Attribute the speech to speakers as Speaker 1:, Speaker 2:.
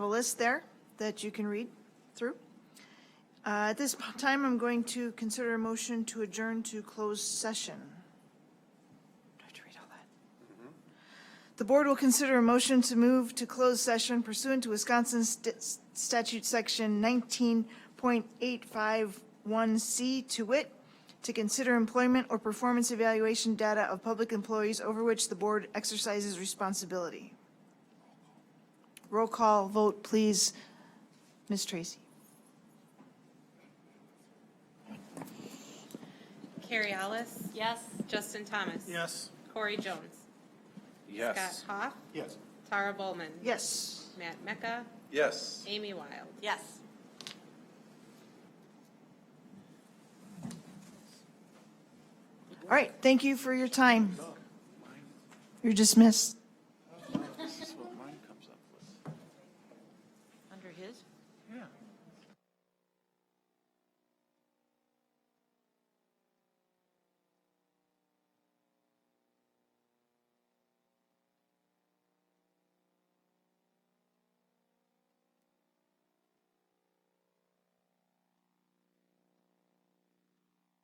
Speaker 1: a list there that you can read through. Uh, At this time, I'm going to consider a motion to adjourn to closed session. Do I have to read all that? The board will consider a motion to move to closed session pursuant to Wisconsin St- Statute Section 19.851C to wit, to consider employment or performance evaluation data of public employees over which the board exercises responsibility. Roll call vote, please. Ms. Tracy?
Speaker 2: Carrie Ellis.
Speaker 3: Yes.
Speaker 2: Justin Thomas.
Speaker 4: Yes.
Speaker 2: Corey Jones.
Speaker 5: Yes.
Speaker 2: Scott Hoff.
Speaker 4: Yes.
Speaker 2: Tara Bowman.
Speaker 1: Yes.
Speaker 2: Matt Mecca.
Speaker 5: Yes.
Speaker 2: Amy Wild.
Speaker 3: Yes.
Speaker 1: All right, thank you for your time. You're dismissed.
Speaker 5: This is what mine comes up with.
Speaker 3: Under his?
Speaker 5: Yeah.